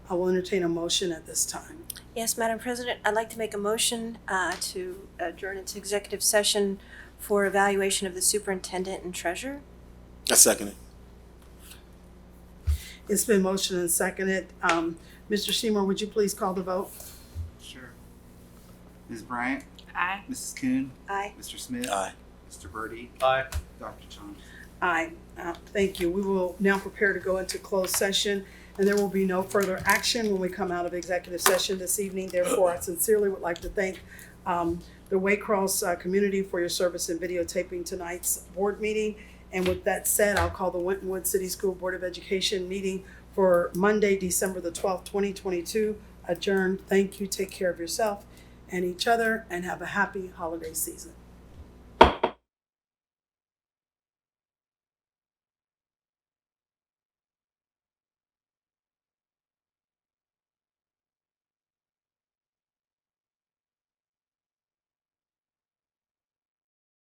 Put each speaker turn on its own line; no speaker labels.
I will entertain a motion at this time.
Yes, Madam President, I'd like to make a motion uh, to adjourn into executive session for evaluation of the superintendent and treasurer.
I second it.
It's been motioned and seconded. Um, Mr. Seymour, would you please call the vote?
Sure. Ms. Bryant,
Aye.
Mrs. Coon,
Aye.
Mr. Smith,
Aye.
Mr. Birdie,
Aye.
Dr. Johnson.
Aye. Uh, Thank you. We will now prepare to go into closed session, and there will be no further action when we come out of executive session this evening. Therefore, I sincerely would like to thank um, the Waycross uh, community for your service in videotaping tonight's board meeting. And with that said, I'll call the Winton Woods City School Board of Education meeting for Monday, December the 12th, 2022 adjourned. Thank you. Take care of yourself and each other, and have a happy holiday season.